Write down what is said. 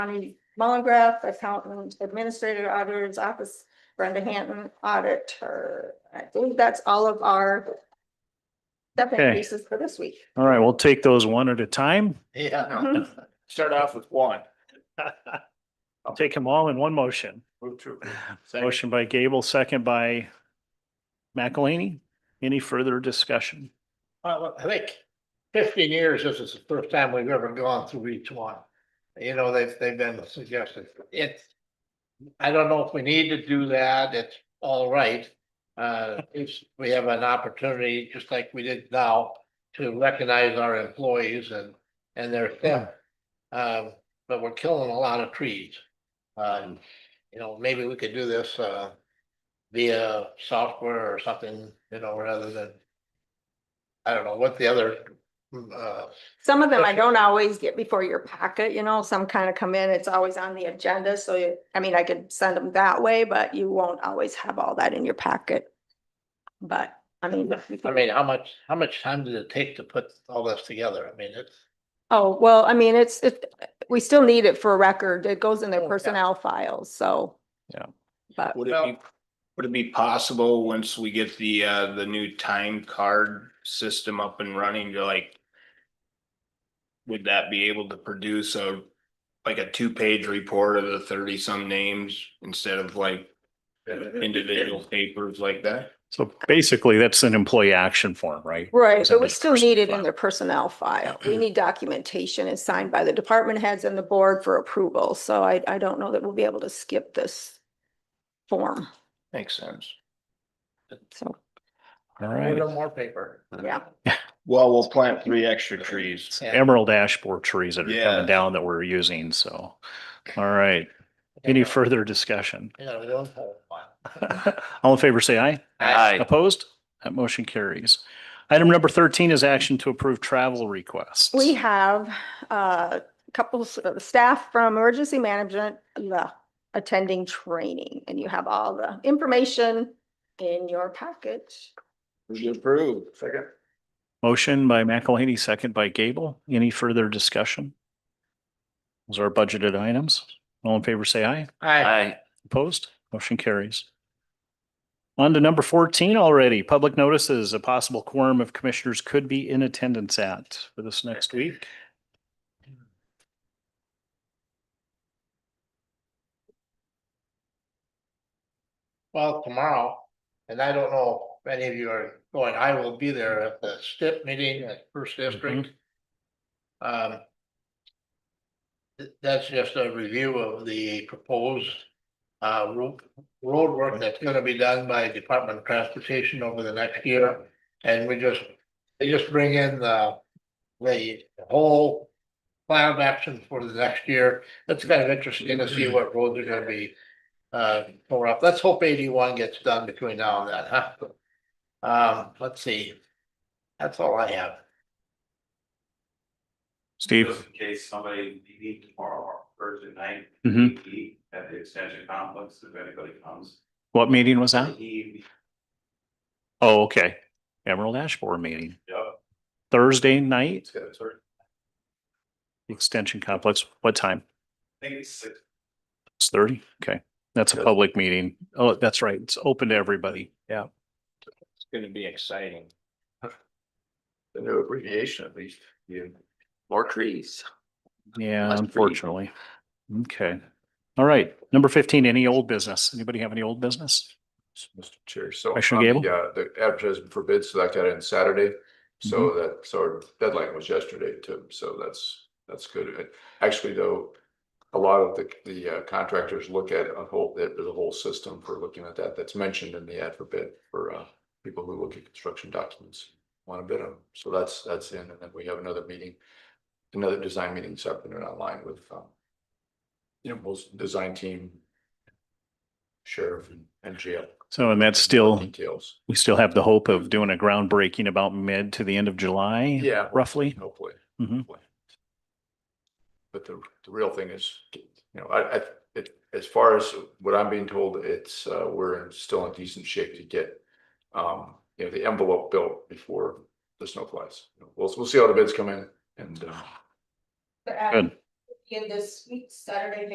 Connie Mullengraf, accountant, administrator, auditor's office, Brenda Hanton, auditor. I think that's all of our step Okay. increases for this week. All right, we'll take those one at a time. Yeah. Start off with one. I'll take them all in one motion. Move to. Motion by Gable, second by McElhaney. Any further discussion? Well, I think fifteen years, this is the first time we've ever gone through each one. You know, they've, they've been suggested, it's. I don't know if we need to do that, it's all right. Uh, if we have an opportunity, just like we did now, to recognize our employees and, and their staff. Um, but we're killing a lot of trees. Um, you know, maybe we could do this, uh. Via software or something, you know, rather than I don't know what the other, uh, Some of them I don't always get before your packet, you know, some kind of come in, it's always on the agenda, so you, I mean, I could send them that way, but you won't always have all that in your packet. But, I mean, you Mm-hmm. I can- mean, how much, how much time did it take to put all this together? I mean, it's. oh, well, I mean, it's, it, we still need it for a record, it goes in Oh, their yeah. personnel files, so. Yeah. But, Would it be, would it be possible, once we get the, uh, the new time card system up and running, to like. Would that be able to produce a, like a two-page report of the thirty-some names instead of like individual papers like that? So basically, that's an employee action form, right? right, It's in but we the still person need it file. in their personnel file, we need documentation and signed by the department heads and the board for approval, so I, I don't know that we'll be able to skip this form, Makes sense. so. All A right. little more paper. Yeah. Well, we'll plant three extra trees. It's Emerald dashboard trees that are Yeah. coming down that we're using, so. All right, any further discussion? Yeah, we don't have one. All in favor, say aye. Aye. Opposed? That motion carries. Item number thirteen is action to approve travel requests. We have uh, a couple s- of staff from emergency management the- attending training, and you have all the information in your packet. Approved. Second. Motion by McElhaney, second by Gable. Any further discussion? Those are budgeted items. All in favor, say aye. Aye. Opposed? Motion carries. On to number fourteen already. Public notices, a possible quorum of commissioners could be in attendance at for this next week. Well, tomorrow, and I don't know if any of you are going, I will be there at the STIP meeting at First District. Um. th- That's just a review of the proposed uh road road work that's gonna be done by Department of Transportation over the next year. And we just, they just bring in the the whole plan of action for the next year. That's kind of interesting to see what roads are gonna be uh, tore up. Let's hope eighty-one gets done between now and then, huh? Um, let's see. That's all I have. Steve? Just in case somebody needing tomorrow or Thursday night. Mhm. meet At the extension complex, if anybody comes. What meeting was that? He, Oh, okay. Emerald Ash Board meeting, yeah, Thursday night, it's gonna turn, Extension Complex. What time? I think it's six, It's thirty? Okay. That's a public meeting. Oh, that's right. It's open to everybody. Yeah. It's gonna be exciting. The new abbreviation at least, you. More trees. Yeah, Must be. unfortunately. Okay. All right. Number fifteen, any old business? Anybody have any old business? Mr. Chair, so. Commissioner on the, Gable? uh, The advertisement for bids, so that got in Saturday, so that, so our deadline was yesterday too, so that's, that's good. And Actually, though, a lot of the, the uh, contractors look at a whole, there's a whole system for looking at that, that's mentioned in the ad for bid for, uh, people who look at construction documents, want to bid them, so that's, that's in, and then we have another meeting, another design meeting this afternoon online with, um, you know, most design team, sheriff and- and jail. So, and that's still, Details, we still have the hope of doing a groundbreaking about mid to the end of July? Yeah. Roughly? hopefully. Mhm. hopefully. But the, the real thing is, you know, I, I, it, as far as what I'm being told, it's, uh, we're in- still in decent shape to get. Um, you know, the envelope built before the snow flies. We'll, we'll see how the bids come in and, uh, Good. in this week, Saturday,